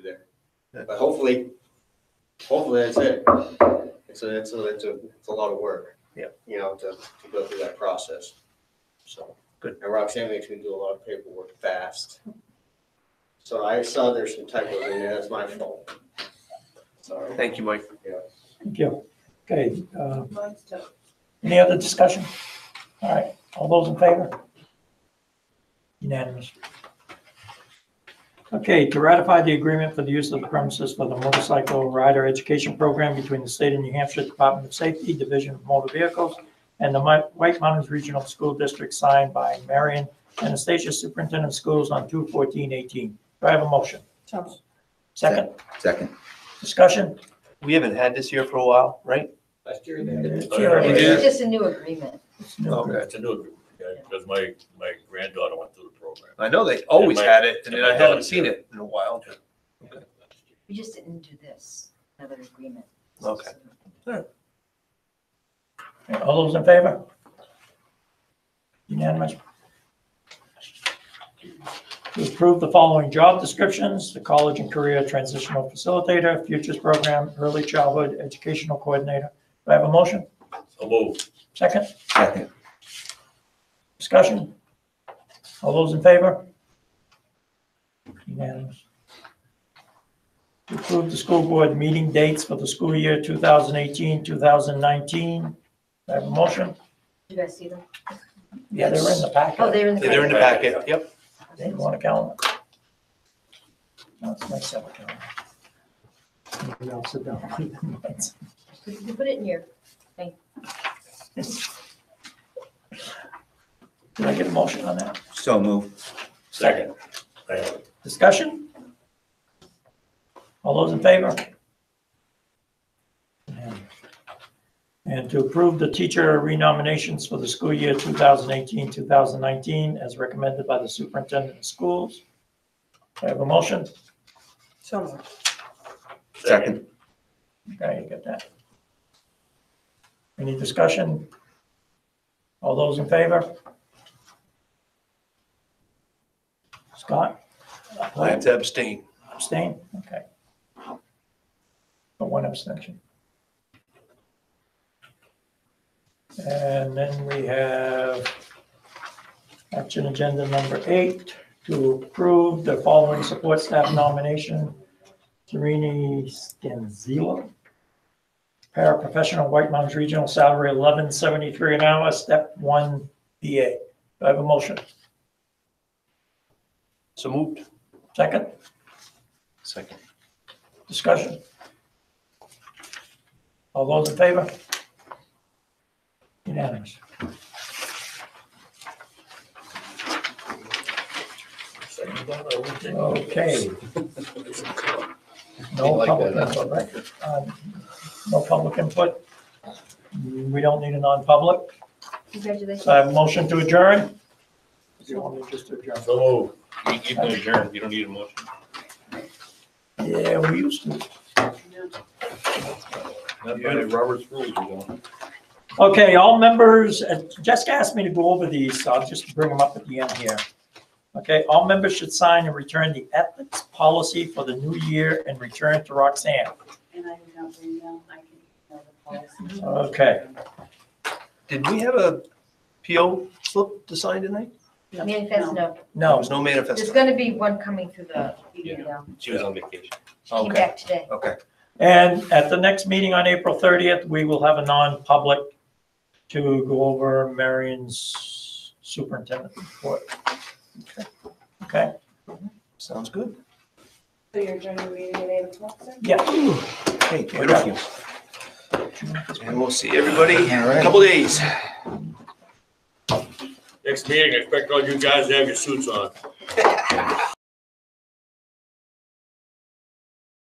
But hopefully, hopefully that's it. It's a, it's a, it's a, it's a lot of work. Yeah. You know, to, to go through that process. So. Good. And Roxanne makes me do a lot of paperwork fast. So I saw there's some typos in there. That's my fault. Sorry. Thank you, Mike. Thank you. Okay, uh, Mine's tough. any other discussion? All right, all those in favor? Unanimous. Okay, to ratify the agreement for the use of the premises for the motorcycle rider education program between the state of New Hampshire Department of Safety, Division of Motor Vehicles, and the Mi- White Mountains Regional School District signed by Marion Anastasia Superintendent of Schools on 2/14/18. Do I have a motion? Tough. Second, Second. discussion? We haven't had this here for a while, right? Last year they did. It It's is. just a new agreement. Okay. It's a new agreement, because my, my granddaughter went through the program. I know they always It might- had it, and it then might I haven't not seen appear. it in a while. We We just didn't do this, another agreement. Okay. All those in favor? Unanimous. To approve the following job descriptions, the College and Career Transitional Facilitator, Futures Program, Early Childhood Educational Coordinator. Do I have a motion? So move. Second, Second. discussion? All those in favor? Unanimous. To approve the school board meeting dates for the school year 2018, 2019. Do I have a motion? You guys see them? Yeah, they're in the packet. Oh, they're in the. They're in the packet, yep. They didn't want a calendar. No, it's nice to have a calendar. Maybe I'll sit down. You can put it in here. Did I get a motion on that? So move. Second. Discussion? All those in favor? And to approve the teacher renominations for the school year 2018, 2019, as recommended by the superintendent of schools. Do I have a motion? So much. Second. Okay, you get that. Any discussion? All those in favor? Scott? I have to abstain. Abstain? Okay. But one abstention. And then we have action agenda number eight, to approve the following support staff nomination. Serini Scanzillo, paraprofessional, White Mountains Regional, salary eleven seventy-three an hour, step one BA. Do I have a motion? So moved. Second? Second. Discussion? All those in favor? Unanimous. Okay. No public input, right? Um, No public input. We don't need a non-public. Congratulations. So I have a motion to adjourn? You want me just to adjourn? So move. You can adjourn, you don't need a motion. Yeah, we used to. Robert's rules, you don't. Okay, all members, uh, Jessica asked me to go over these, so I'll just bring them up at the end here. Okay, all members should sign and return the ethics policy for the new year and return to Roxanne. And I did not bring them, I can tell the policy. Okay, Did we have a PO slip to sign tonight? Manifest no. There no, was no There's manifest. gonna be one coming through the email. She was on vacation. She came back today. Okay. and at the next meeting on April 30th, we will have a non-public to go over Marion's superintendent report. Okay, Sounds good. So you're joining the meeting at eight o'clock then? yeah, Hey, beautiful. And we'll see everybody in All a right. couple days. Next meeting, I expect all you guys to have your suits on.